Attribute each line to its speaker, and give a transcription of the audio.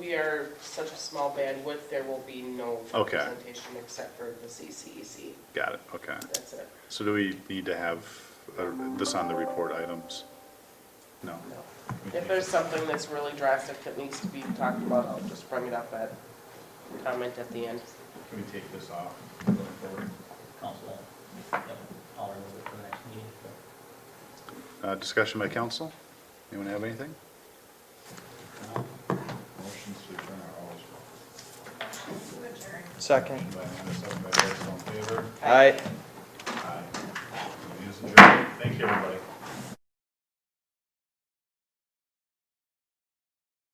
Speaker 1: we are such a small bandwidth, there will be no
Speaker 2: Okay.
Speaker 1: presentation except for the CCEC.
Speaker 2: Got it, okay.
Speaker 1: That's it.
Speaker 2: So do we need to have uh, this on the report items? No.
Speaker 1: No. If there's something that's really drastic that needs to be talked about, I'll just bring it up at comment at the end.
Speaker 3: Can we take this off going forward, council? Yep, I'll remove it for the next meeting.
Speaker 2: Uh, Discussion by council? Anyone have anything?
Speaker 4: Motion to adjourn are always welcome.
Speaker 5: Second.
Speaker 4: Motion by Amanda, second by Barry, all in favor?
Speaker 5: Aye.
Speaker 4: Aye. Meeting is adjourned. Thank you, everybody.